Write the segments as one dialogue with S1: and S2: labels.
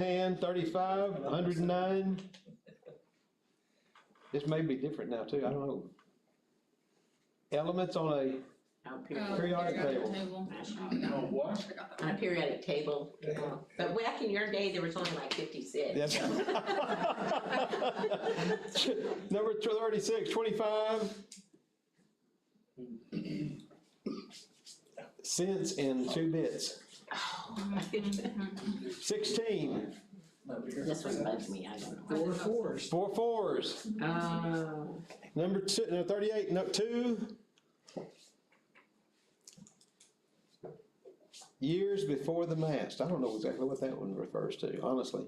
S1: Ten, thirty-five, hundred and nine. This may be different now too, I don't know. Elements on a,
S2: On a
S3: Oh,
S2: periodic,
S1: Periodic
S3: periodic
S1: table.
S3: table.
S4: Oh, what?
S2: on a periodic table. uh, But back in your day, there was only like fifty-six.
S1: that's. Number tw- thirty-six, twenty-five. Cents in two bits. Sixteen,
S2: This one bugs me, I don't know.
S5: Four fours.
S1: four fours.
S2: Oh,
S1: Number two, no, thirty-eight, no, two. Years before the mast, I don't know exactly what that one refers to, honestly.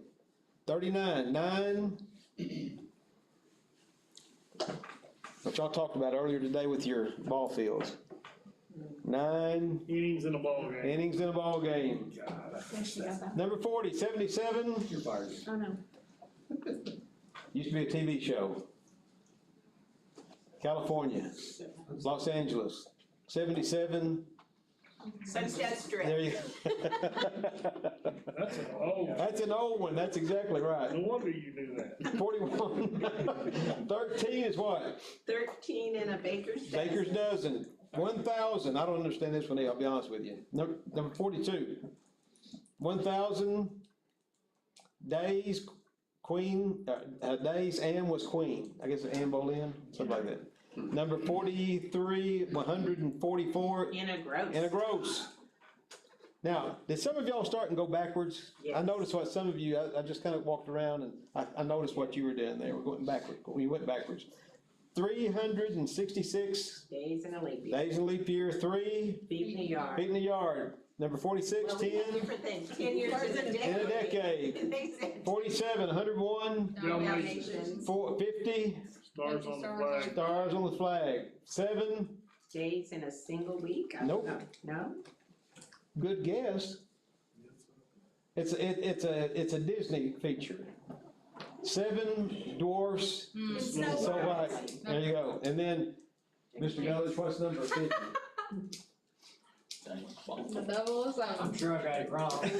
S1: Thirty-nine, nine. What y'all talked about earlier today with your ball fields. Nine
S4: Innings in a ballgame.
S1: innings in a ball game.
S4: God,
S3: There she got that.
S1: Number forty, seventy-seven,
S4: you're fired.
S3: Oh, no.
S1: used to be a TV show. California, Los Angeles, seventy-seven,
S2: Sunset
S1: There
S2: Strip.
S1: you.
S4: That's an old,
S1: That's an old one, that's exactly
S4: no
S1: right.
S4: wonder you knew that.
S1: Forty-one, thirteen is what?
S2: Thirteen and a baker's dozen.
S1: Baker's dozen, one thousand, I don't understand this one, either, I'll be honest with you. Number, number forty-two, one thousand days, queen, uh, uh, days Anne was queen, I guess Anne Boleyn, something like that. Number forty-three, one hundred and forty-four,
S2: In a gross.
S1: and a gross. Now, did some of y'all start and go backwards? I
S2: Yes.
S1: noticed what some of you, I, I just kind of walked around and I, I noticed what you were doing there, we're going backward, we went backwards. Three hundred and sixty-six
S2: Days in a leap year.
S1: days in leap year, three,
S2: Feet in the yard.
S1: feet in the yard, number forty-six,
S2: Well, we had
S1: ten,
S2: different things. Ten years is a
S1: in a
S2: decade.
S1: decade.
S2: They said.
S1: Forty-seven, hundred one,
S2: Dalmatians.
S1: four, fifty,
S4: Stars on the
S3: Stars
S4: flag.
S1: stars on the flag, seven,
S2: Days in a single week? I don't
S1: Nope.
S2: know. No?
S1: good guess. It's, it, it's a, it's a Disney feature. Seven dwarfs
S3: Mm.
S4: Snow
S1: And So
S4: White.
S1: like, there you go, and then, Mr. Gullis, what's number fifty?
S3: The double is
S5: I'm
S3: on,
S5: sure I got it wrong.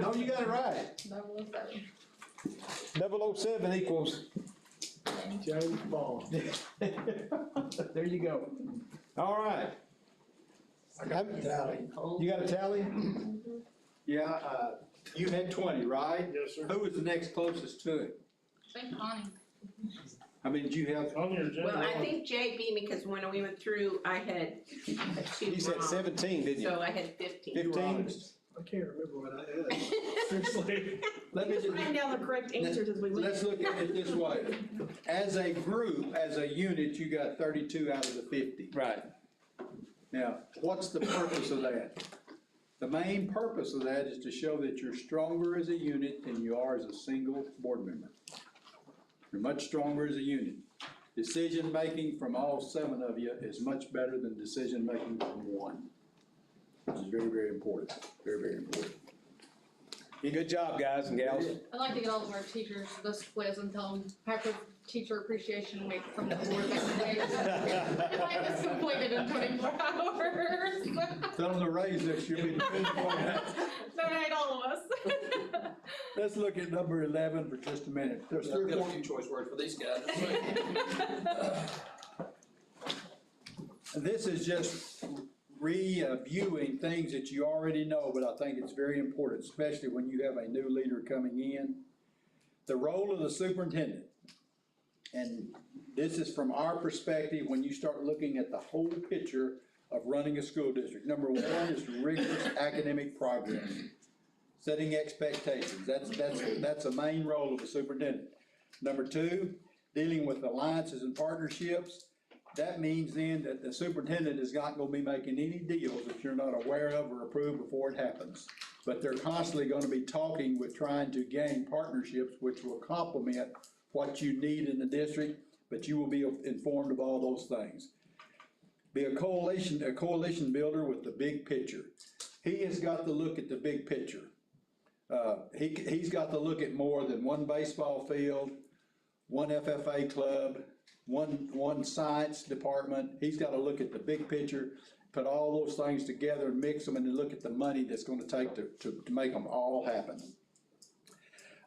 S1: No, you got it right,
S3: double is on.
S1: double oh seven equals.
S5: Joe Ball.
S1: There you go. All right.
S5: Tally.
S1: You got a tally?
S6: Yeah, uh, you had twenty, right?
S4: Yes, sir.
S6: Who was the next closest to it?
S3: Thank Connie.
S6: I mean, did you have,
S4: On your
S2: Well, I
S4: agenda.
S2: think Jay beat me because when we went through, I had two
S1: You said
S2: wrong.
S1: seventeen, didn't you?
S2: So I had fifteen.
S6: you were
S1: 15.
S6: honest.
S5: I can't remember what I had.
S4: Seriously.
S6: Let me just,
S2: Find down the correct answers as we went.
S6: let's look at it this way. As a group, as a unit, you got thirty-two out of the fifty.
S1: Right.
S6: Now, what's the purpose of that? The main purpose of that is to show that you're stronger as a unit than you are as a single board member. You're much stronger as a unit. Decision-making from all seven of you is much better than decision-making from one. Which is very, very important, very, very important.
S1: Good job, guys and gals.
S3: I'd like to get all of our teachers this quiz and tell them Happy Teacher Appreciation Week from the board next week. I'd like this completed in twenty-four hours.
S6: Tell them to raise this, you'll be.
S3: Donate all of us.
S6: Let's look at number eleven for just a minute. There's
S7: I've
S6: three or
S7: got a
S6: four
S7: few choice words for these guys.
S6: This is just reviewing things that you already know, but I think it's very important, especially when you have a new leader coming in. The role of the superintendent. And this is from our perspective, when you start looking at the whole picture of running a school district. Number one is rigorous academic progress. Setting expectations, that's, that's, that's a main role of a superintendent. Number two, dealing with alliances and partnerships. That means then that the superintendent is not gonna be making any deals that you're not aware of or approved before it happens. But they're constantly gonna be talking with trying to gain partnerships which will complement what you need in the district, but you will be informed of all those things. Be a coalition, a coalition builder with the big picture. He has got to look at the big picture. Uh, he, he's got to look at more than one baseball field, one FFA club, one, one science department, he's gotta look at the big picture, put all those things together and mix them and then look at the money that's gonna take to, to, to make them all happen.